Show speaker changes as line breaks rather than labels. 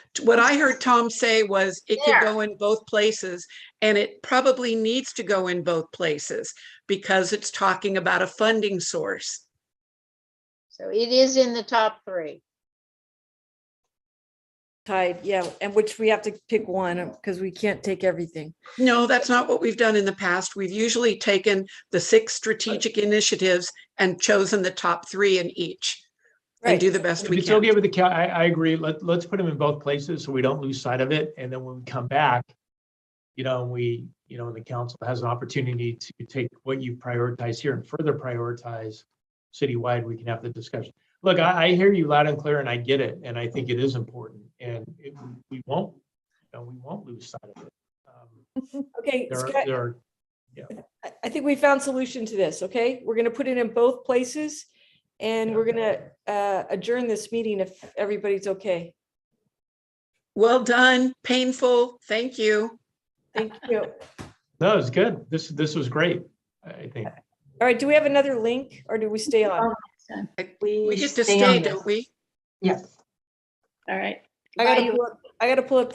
What I heard Tom say was it could go in both places and it probably needs to go in both places because it's talking about a funding source.
So it is in the top three.
tied, yeah, and which we have to pick one because we can't take everything.
No, that's not what we've done in the past. We've usually taken the six strategic initiatives and chosen the top three in each and do the best
If
we
it's okay
can.
with the, coun- I, I agree. Let, let's put them in both places so we don't lose sight of it. And then when we come back, you know, we, you know, the council has an opportunity to take what you prioritize here and further prioritize citywide, we can have the discussion. Look, I, I hear you loud and clear and I get it. And I think it is important and it, we won't, you know, we won't lose sight of it. Um,
Okay,
There
Scott,
are, there are,
I, I think we found solution to this, okay? We're gonna put it in both places and we're gonna uh, adjourn this meeting if everybody's okay.
Well done, painful. Thank you.
Thank you. All
no, it's good. This, this was great, I think.
right, do we have another link or do we stay on?
We get to
stay on
stay,
this.
don't we?
Yes. All right.
I gotta, pull up- I gotta pull up